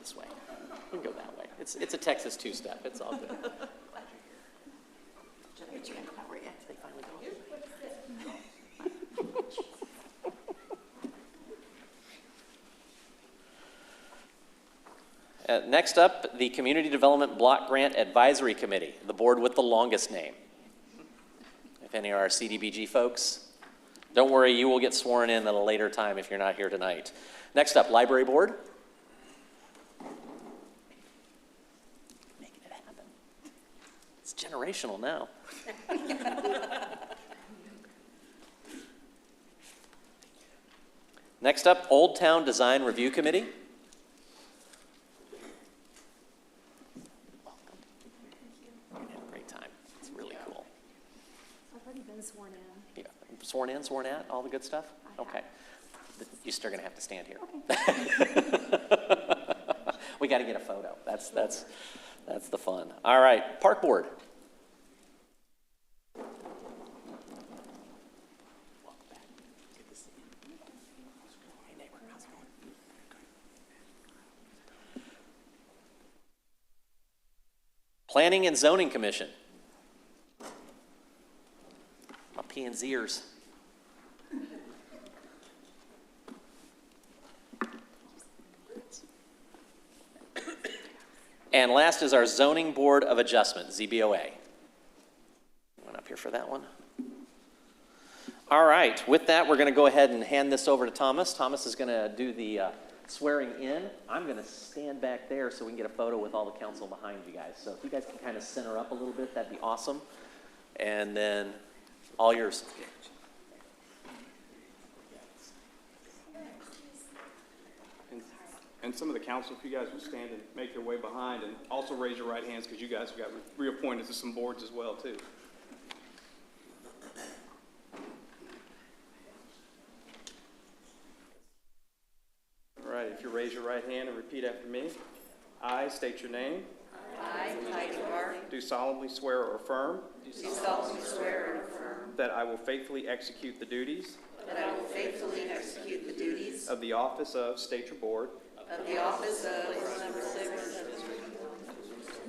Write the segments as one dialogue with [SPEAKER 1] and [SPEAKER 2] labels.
[SPEAKER 1] this way. We can go that way. It's, it's a Texas two-step. It's all good. How are you? They finally got you. Uh, Next up, the Community Development Block Grant Advisory Committee, the board with the longest name. If any are our CDBG folks, don't worry, you will get sworn in at a later time if you're not here tonight. Next up, Library Board. Making it happen. It's generational now. Next up, Old Town Design Review Committee. Welcome. You're gonna have a great time. It's really cool.
[SPEAKER 2] I've already been sworn in.
[SPEAKER 1] Yeah, Sworn in, sworn out, all the good stuff?
[SPEAKER 2] I
[SPEAKER 1] Okay. Th- You're still going to have to stand here.
[SPEAKER 2] Okay.
[SPEAKER 1] We got to get a photo. That's, that's, that's the fun. All right, Park Board. Planning and Zoning Commission. My P and Zers. And last is our Zoning Board of Adjustment, ZBOA. Went up here for that one. All right, with that, we're going to go ahead and hand this over to Thomas. Thomas is going to do the uh, swearing in. I'm going to stand back there so we can get a photo with all the council behind you guys. So if you guys can kind of center up a little bit, that'd be awesome. And then, all yours.
[SPEAKER 3] And- And some of the council, if you guys will stand and make your way behind, and also raise your right hands, because you guys got reappointed to some boards as well, too. All right, if you raise your right hand and repeat after me. I state your name,
[SPEAKER 4] I, Heidi Hart,
[SPEAKER 3] do solemnly swear or affirm
[SPEAKER 4] do solemnly swear and affirm
[SPEAKER 3] that I will faithfully execute the duties
[SPEAKER 4] that I will faithfully execute the duties
[SPEAKER 3] of the office of, state your board,
[SPEAKER 4] of the office of Ward Number Six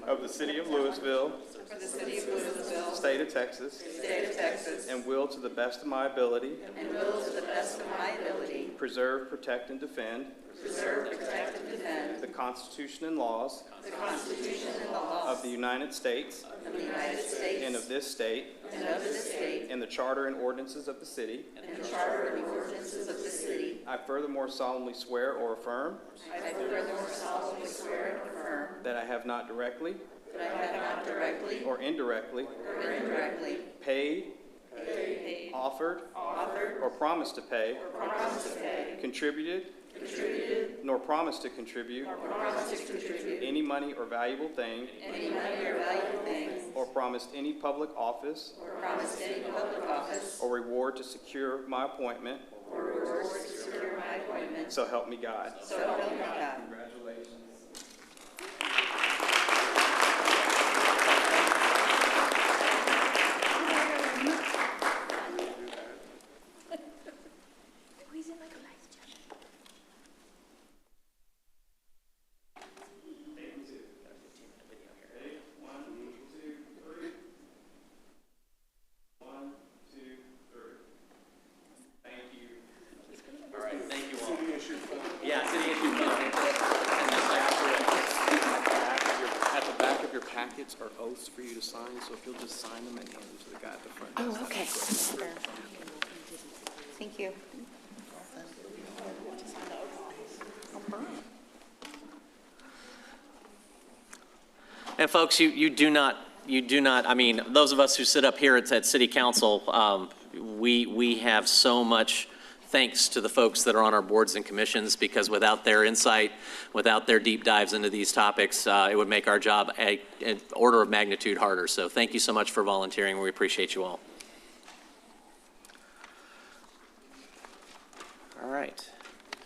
[SPEAKER 3] of the city of Louisville,
[SPEAKER 4] for the city of Louisville,
[SPEAKER 3] state of Texas,
[SPEAKER 4] state of Texas,
[SPEAKER 3] and will to the best of my ability
[SPEAKER 4] and will to the best of my ability
[SPEAKER 3] Preserve, protect, and defend
[SPEAKER 4] preserve, protect, and defend
[SPEAKER 3] the Constitution and laws
[SPEAKER 4] the Constitution and the
[SPEAKER 3] of
[SPEAKER 4] laws
[SPEAKER 3] the United States
[SPEAKER 4] of the United
[SPEAKER 3] and of
[SPEAKER 4] States
[SPEAKER 3] this state,
[SPEAKER 4] and of the state,
[SPEAKER 3] and the charter and ordinances of the city.
[SPEAKER 4] and the charter and ordinances of the city.
[SPEAKER 3] I furthermore solemnly swear or affirm
[SPEAKER 4] I furthermore solemnly swear and affirm
[SPEAKER 3] that I have not directly
[SPEAKER 4] that I have not directly
[SPEAKER 3] or indirectly
[SPEAKER 4] or indirectly
[SPEAKER 3] paid,
[SPEAKER 4] paid,
[SPEAKER 3] offered,
[SPEAKER 4] offered,
[SPEAKER 3] or promised to pay,
[SPEAKER 4] or promised to pay
[SPEAKER 3] contributed, nor promised to contribute
[SPEAKER 4] promise to contribute
[SPEAKER 3] any money or valuable thing,
[SPEAKER 4] any money or valuable things
[SPEAKER 3] or promised any public office
[SPEAKER 4] or promised any public office
[SPEAKER 3] or reward to secure my appointment,
[SPEAKER 4] or reward to secure my appointment,
[SPEAKER 3] so help me God.
[SPEAKER 4] so help me God.
[SPEAKER 2] Who is in like a life jacket?
[SPEAKER 1] All right, thank you all. Yeah, city issue fund.
[SPEAKER 5] back of your- At the back of your packets are oaths for you to sign, so if you'll just sign them and hand them to the guy at the front desk.
[SPEAKER 2] Oh, okay. Thank you.
[SPEAKER 1] And folks, you, you do not, you do not, I mean, those of us who sit up here at, at city council, um, we, we have so much thanks to the folks that are on our boards and commissions, because without their insight, without their deep dives into these topics, uh, it would make our job a, an order of magnitude harder. So thank you so much for volunteering. We appreciate you all. All right.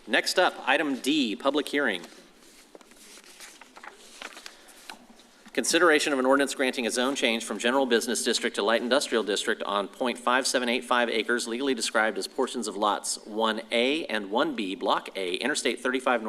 [SPEAKER 1] Next up, item D, public hearing. Consideration of an ordinance granting a zone change from general business district to light industrial district on .5785 acres legally described as portions of lots 1A and 1B, Block A, Interstate 35 North